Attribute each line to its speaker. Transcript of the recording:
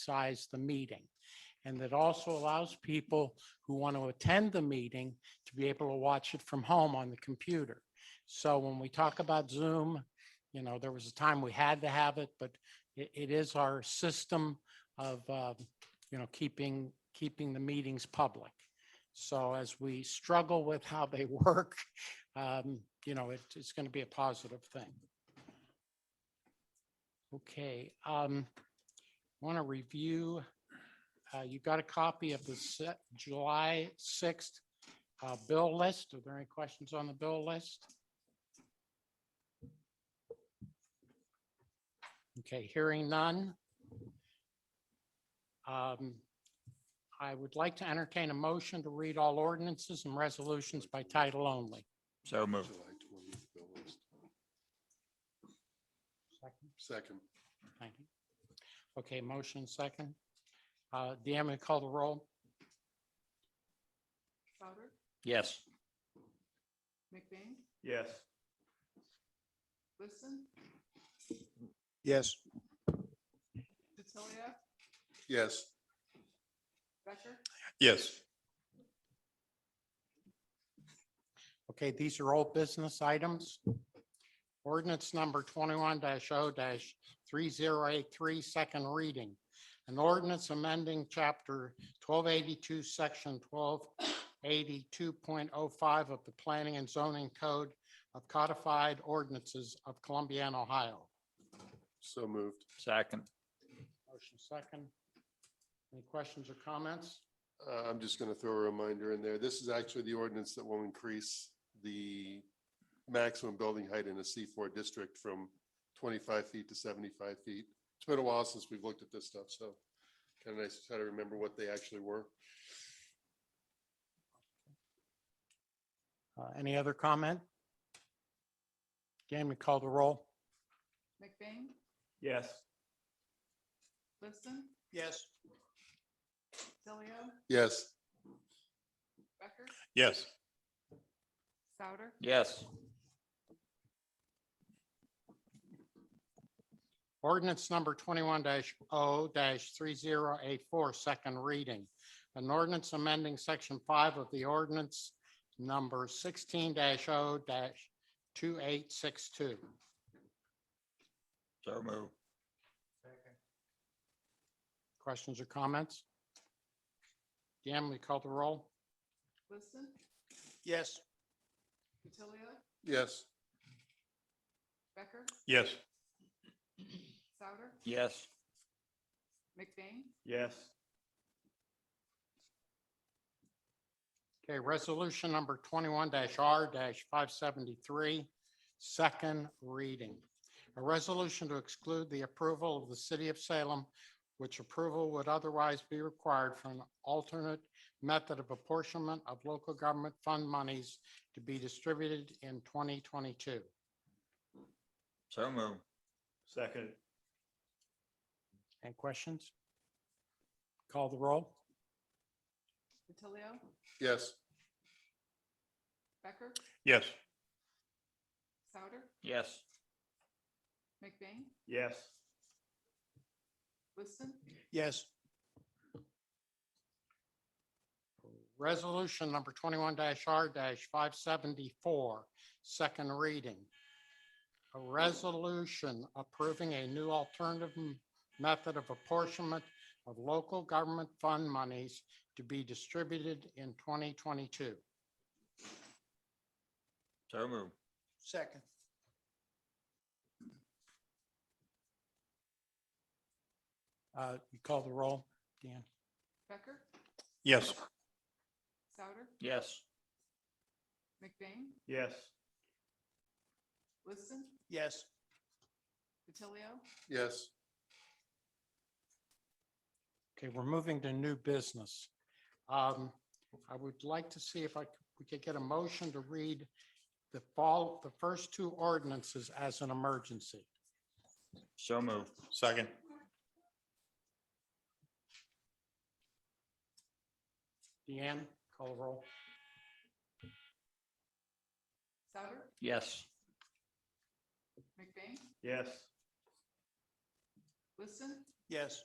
Speaker 1: size the meeting. And that also allows people who want to attend the meeting to be able to watch it from home on the computer. So when we talk about Zoom, you know, there was a time we had to have it, but it, it is our system of, uh, you know, keeping, keeping the meetings public. So as we struggle with how they work, um, you know, it, it's going to be a positive thing. Okay, um, want to review, uh, you got a copy of the se- July sixth, uh, bill list. Are there any questions on the bill list? Okay, hearing none. Um, I would like to entertain a motion to read all ordinances and resolutions by title only.
Speaker 2: So moved.
Speaker 3: July 20th bill list. Second,
Speaker 1: Thank you. Okay, motion second. Uh, Deanne, will you call the roll?
Speaker 4: Souter,
Speaker 2: Yes.
Speaker 4: McBain,
Speaker 2: Yes.
Speaker 4: Liston,
Speaker 5: Yes.
Speaker 4: D'Attilio,
Speaker 3: yes.
Speaker 4: Becker,
Speaker 3: Yes.
Speaker 1: Okay, these are all business items. Ordinance number twenty-one 0 three zero eight three, second reading. An ordinance amending chapter twelve eighty-two, section twelve eighty-two point oh five of the Planning and Zoning Code of Codified Ordinances of Columbiana, Ohio.
Speaker 3: So moved.
Speaker 2: Second.
Speaker 1: Motion second. Any questions or comments?
Speaker 3: Uh, I'm just going to throw a reminder in there. This is actually the ordinance that will increase the maximum building height in a C4 district from 25 feet to 75 feet. It's been a while since we've looked at this stuff, so kind of nice to try to remember what they actually were.
Speaker 1: Uh, Any other comment? Jamie, call the roll.
Speaker 4: McBain,
Speaker 2: Yes.
Speaker 4: Liston,
Speaker 5: Yes.
Speaker 4: D'Attilio,
Speaker 3: Yes,
Speaker 4: Becker,
Speaker 5: Yes.
Speaker 4: Souter,
Speaker 2: Yes.
Speaker 1: Ordinance number twenty-one 0 three zero eight four, second reading. An ordinance amending section five of the ordinance number sixteen 0 two eight six two.
Speaker 2: So moved.
Speaker 1: Questions or comments? Deanne, will you call the roll?
Speaker 4: Liston,
Speaker 5: Yes.
Speaker 4: D'Attilio,
Speaker 3: yes,
Speaker 4: Becker,
Speaker 5: Yes.
Speaker 4: Souter,
Speaker 2: Yes.
Speaker 4: McBain,
Speaker 2: Yes.
Speaker 1: Okay, resolution number twenty-one R five seventy-three, second reading. A resolution to exclude the approval of the city of Salem, which approval would otherwise be required for an alternate method of apportionment of local government fund monies to be distributed in twenty twenty-two.
Speaker 2: So moved.
Speaker 5: Second.
Speaker 1: Any questions? Call the roll.
Speaker 4: D'Attilio,
Speaker 3: yes,
Speaker 4: Becker,
Speaker 5: Yes.
Speaker 4: Souter,
Speaker 2: Yes.
Speaker 4: McBain,
Speaker 5: Yes.
Speaker 4: Liston,
Speaker 5: Yes.
Speaker 1: Resolution number twenty-one R five seventy-four, second reading. A resolution approving a new alternative m- method of apportionment of local government fund monies to be distributed in twenty twenty-two.
Speaker 2: So moved.
Speaker 5: Second.
Speaker 1: Uh, you call the roll, Dan?
Speaker 4: Becker,
Speaker 5: Yes.
Speaker 4: Souter,
Speaker 2: Yes.
Speaker 4: McBain,
Speaker 5: Yes.
Speaker 4: Liston,
Speaker 5: Yes.
Speaker 4: D'Attilio,
Speaker 3: yes,
Speaker 1: Okay, we're moving to new business. Um, I would like to see if I, c- we could get a motion to read the fall, the first two ordinances as an emergency.
Speaker 2: So moved.
Speaker 5: Second.
Speaker 1: Deanne, call the roll.
Speaker 4: Souter,
Speaker 2: Yes.
Speaker 4: McBain,
Speaker 5: Yes.
Speaker 4: Liston,
Speaker 5: Yes.